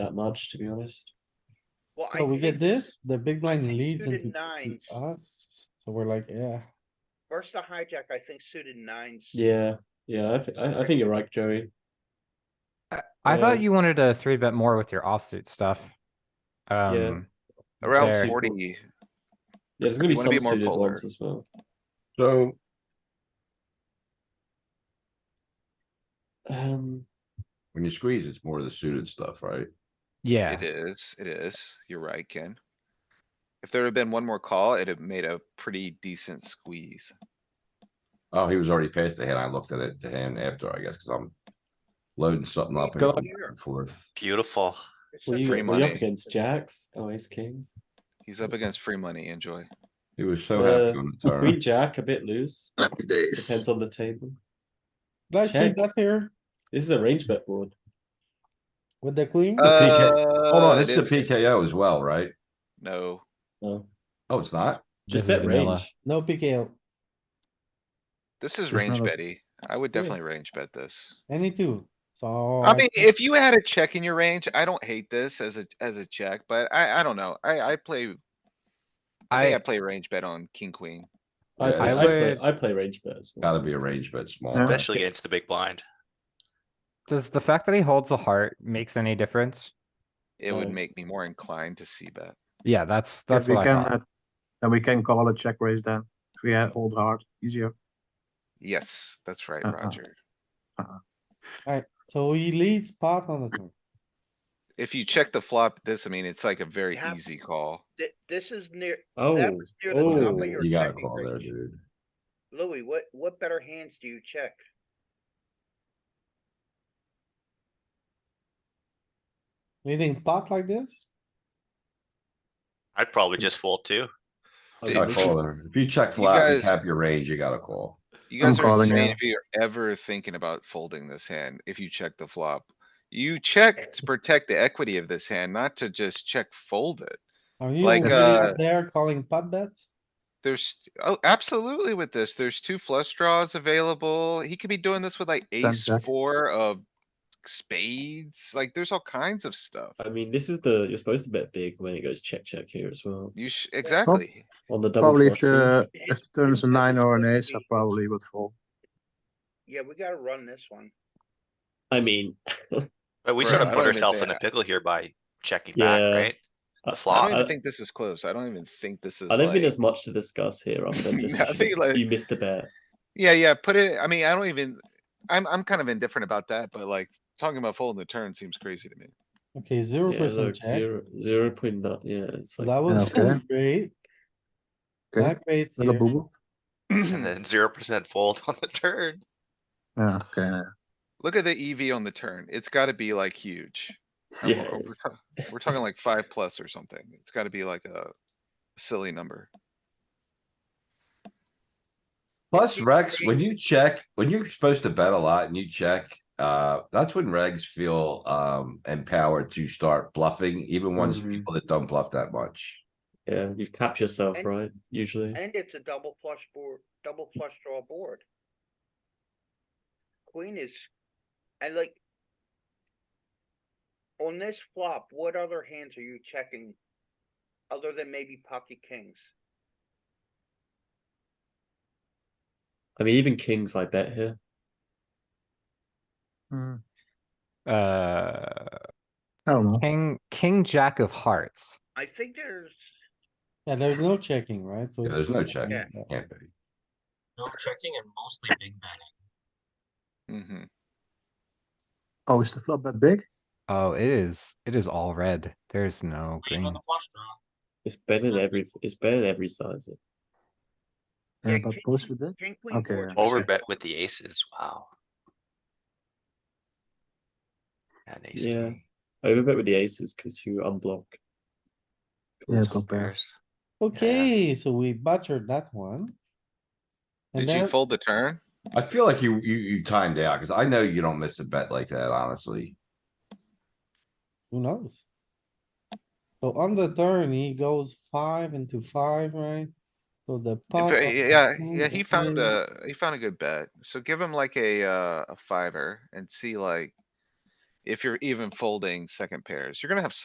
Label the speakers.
Speaker 1: that much, to be honest.
Speaker 2: Well, I
Speaker 3: So we get
Speaker 2: think
Speaker 3: this, the big blind leads
Speaker 2: suited
Speaker 3: into
Speaker 2: nines.
Speaker 3: us, so we're like, yeah,
Speaker 2: versus the hijack, I think suited nines.
Speaker 1: Yeah, yeah, I, thi- I, I think you're right, Joey.
Speaker 4: I- I thought
Speaker 1: Uh,
Speaker 4: you wanted to three bet more with your offsuit stuff. Um,
Speaker 5: Around
Speaker 4: There.
Speaker 5: forty,
Speaker 1: Yeah, there's gonna be
Speaker 5: You wanna
Speaker 1: some
Speaker 5: be more
Speaker 1: suited
Speaker 5: polar.
Speaker 1: ones as well.
Speaker 6: So
Speaker 1: Um,
Speaker 6: when you squeeze, it's more of the suited stuff, right?
Speaker 4: yeah,
Speaker 5: it is, it is. You're right, Ken. If there had been one more call, it'd have made a pretty decent squeeze.
Speaker 6: Oh, he was already past the hand. I looked at it, the hand after, I guess, cuz I'm loading something up. and
Speaker 4: Go
Speaker 6: going
Speaker 2: here.
Speaker 6: back and forth.
Speaker 7: Beautiful.
Speaker 2: It's
Speaker 1: were
Speaker 2: such
Speaker 1: you,
Speaker 5: free
Speaker 2: a-
Speaker 1: were you up
Speaker 5: money.
Speaker 1: against jacks? Oh, ace king.
Speaker 5: He's up against free money, enjoy.
Speaker 6: He was so happy
Speaker 1: Uh,
Speaker 6: on the turn.
Speaker 1: Queen jack, a bit loose,
Speaker 8: Happy days.
Speaker 1: depends on the table.
Speaker 3: did I say
Speaker 1: Check.
Speaker 3: that here
Speaker 1: This is a range bet board.
Speaker 3: with the queen?
Speaker 6: Hold
Speaker 5: Uh,
Speaker 6: on,
Speaker 5: it
Speaker 6: it's Oh, the
Speaker 5: is-
Speaker 6: PKO as well, right?
Speaker 5: No,
Speaker 1: No,
Speaker 6: Oh, it's not?
Speaker 1: just
Speaker 4: This is
Speaker 1: bet
Speaker 4: vanilla.
Speaker 1: range.
Speaker 3: No PKO,
Speaker 5: this is
Speaker 4: Just
Speaker 5: range
Speaker 4: another-
Speaker 5: betty. I would definitely range bet this.
Speaker 3: any two, so.
Speaker 5: I mean,
Speaker 3: think-
Speaker 5: if you had a check in your range, I don't hate this as a, as a check, but I, I don't know. I, I play, I think I
Speaker 4: I,
Speaker 5: play range bet on king, queen.
Speaker 1: I,
Speaker 6: Yeah,
Speaker 1: play-
Speaker 4: I
Speaker 1: I play,
Speaker 4: would-
Speaker 1: I play range bet as well.
Speaker 6: Gotta be a range bet small.
Speaker 7: Especially against the big blind.
Speaker 4: does the fact that he holds a heart makes any difference?
Speaker 5: It
Speaker 6: Oh.
Speaker 5: would
Speaker 1: Um,
Speaker 5: make me more inclined to see bet.
Speaker 4: Yeah, that's,
Speaker 9: Then
Speaker 4: that's
Speaker 9: we
Speaker 4: what I
Speaker 9: can,
Speaker 4: thought.
Speaker 9: uh, Then we can call a check raise then, if we had old heart, easier.
Speaker 5: Yes, that's right,
Speaker 6: Uh-huh.
Speaker 9: Uh-uh.
Speaker 5: Roger.
Speaker 3: Alright, so he leads pot on the turn,
Speaker 5: If you check the flop, this, I mean, it's like a very
Speaker 2: Yeah.
Speaker 5: easy call.
Speaker 2: Thi- This is near, that
Speaker 1: Oh,
Speaker 2: was near the top
Speaker 1: oh,
Speaker 2: of your
Speaker 6: You gotta
Speaker 2: checking
Speaker 6: call there,
Speaker 2: range.
Speaker 6: dude.
Speaker 2: Louis, what, what better hands do you check?
Speaker 3: leading pot like this,
Speaker 7: I'd probably just fold too.
Speaker 9: Oh,
Speaker 5: Dude,
Speaker 6: Gotta
Speaker 5: this
Speaker 6: call
Speaker 5: is-
Speaker 6: there. If you check
Speaker 5: you
Speaker 6: flop and
Speaker 5: guys-
Speaker 6: tap your range, you gotta call.
Speaker 5: You
Speaker 9: I'm
Speaker 5: guys are
Speaker 9: calling
Speaker 5: insane
Speaker 9: now.
Speaker 5: if you're ever thinking about folding this hand, if you check the flop. You check to protect the equity of this hand, not to just check fold it.
Speaker 3: are you
Speaker 5: Like,
Speaker 3: really up
Speaker 5: uh,
Speaker 3: there calling pot bets?
Speaker 5: There's, oh, absolutely with this. There's two flush draws available. He could be doing this with like ace
Speaker 9: jack.
Speaker 5: four of spades. Like, there's all kinds of stuff.
Speaker 1: I mean, this is the, you're supposed to bet big when it goes check, check here as well,
Speaker 5: You should, exactly.
Speaker 1: on the double
Speaker 9: Probably if
Speaker 1: flush. draw.
Speaker 9: the, if the turn is a nine or an ace, I probably would fold.
Speaker 2: Yeah, we gotta run this one.
Speaker 1: I mean,
Speaker 7: But we
Speaker 5: Right,
Speaker 7: sort
Speaker 5: I
Speaker 7: of
Speaker 5: don't
Speaker 7: put ourselves in
Speaker 5: think-
Speaker 7: a pickle here by checking back,
Speaker 1: Yeah.
Speaker 7: right?
Speaker 1: I-
Speaker 7: The
Speaker 5: I
Speaker 7: flop.
Speaker 5: don't even
Speaker 1: I-
Speaker 5: think this is close. I don't even think this is
Speaker 1: I don't think
Speaker 5: like,
Speaker 1: there's much to discuss here, other than just
Speaker 5: I
Speaker 1: you
Speaker 5: think,
Speaker 1: should-
Speaker 5: like-
Speaker 1: you missed a bet.
Speaker 5: yeah, yeah, put it, I mean, I don't even, I'm, I'm kind of indifferent about that, but like, talking about folding the turn seems crazy to me.
Speaker 3: Okay, zero
Speaker 1: Yeah,
Speaker 3: percent
Speaker 1: look,
Speaker 3: check,
Speaker 1: zero, zero point nine, yeah, it's
Speaker 3: So that
Speaker 1: like,
Speaker 3: was
Speaker 9: Okay.
Speaker 3: great.
Speaker 9: Okay.
Speaker 3: Not great
Speaker 9: Little
Speaker 3: here.
Speaker 9: boo-boo.
Speaker 7: And then zero percent fold on the turn.
Speaker 9: Yeah, okay.
Speaker 5: uh, Look at the EV on the turn. It's gotta be like huge. And
Speaker 1: yeah,
Speaker 5: We're we're ta- we're talking like five plus or something. It's gotta be like a silly number.
Speaker 6: Plus Rex, when you check, when you're supposed to bet a lot and you check, uh, that's when regs feel, um, empowered to start bluffing, even ones
Speaker 1: Mhm.
Speaker 6: people that don't bluff that much.
Speaker 1: yeah, you cap yourself,
Speaker 2: And-
Speaker 1: right, usually.
Speaker 2: And it's a double flush board, double flush draw board. Queen is, I like. On this flop, what other hands are you checking? Other than maybe pocket kings?
Speaker 1: I mean, even kings I bet here.
Speaker 9: Hmm,
Speaker 4: Uh,
Speaker 9: I don't know.
Speaker 4: king, king, jack of hearts.
Speaker 2: I think there's,
Speaker 3: Yeah, there's no checking, right? So
Speaker 6: Yeah,
Speaker 3: it's
Speaker 6: there's no
Speaker 3: just-
Speaker 6: check.
Speaker 2: Yeah.
Speaker 6: Can't be.
Speaker 10: No checking and mostly big betting.
Speaker 5: hmm
Speaker 9: Oh, is the flop that big?
Speaker 4: Oh, it is, it is all red. There's no
Speaker 10: Even
Speaker 4: green.
Speaker 10: on the flush draw.
Speaker 1: It's better than every, it's better than every size.
Speaker 2: Yeah,
Speaker 9: Yeah, but
Speaker 2: king-
Speaker 9: mostly big?
Speaker 2: king, queen.
Speaker 9: Okay,
Speaker 2: boards.
Speaker 7: Over bet with the aces, wow. And ace
Speaker 1: Yeah.
Speaker 7: king.
Speaker 1: I overbet with the aces because you unblock.
Speaker 9: Yeah,
Speaker 7: So
Speaker 9: go pair.
Speaker 7: pairs.
Speaker 3: Okay, so we butchered that one. And
Speaker 5: Did you
Speaker 3: then-
Speaker 5: fold the turn?
Speaker 6: I feel like you, you, you timed out, cause I know you don't miss a bet like that, honestly.
Speaker 3: Who knows? So on the turn, he goes five into five, right? So the.
Speaker 5: In
Speaker 3: pot
Speaker 5: fa-
Speaker 3: of the
Speaker 5: Yeah,
Speaker 3: king,
Speaker 5: yeah,
Speaker 3: the
Speaker 5: he found
Speaker 3: queen.
Speaker 5: a, he found a good bet. So give him like a, uh, a fiver and see like. If you're even folding second pairs, you're gonna have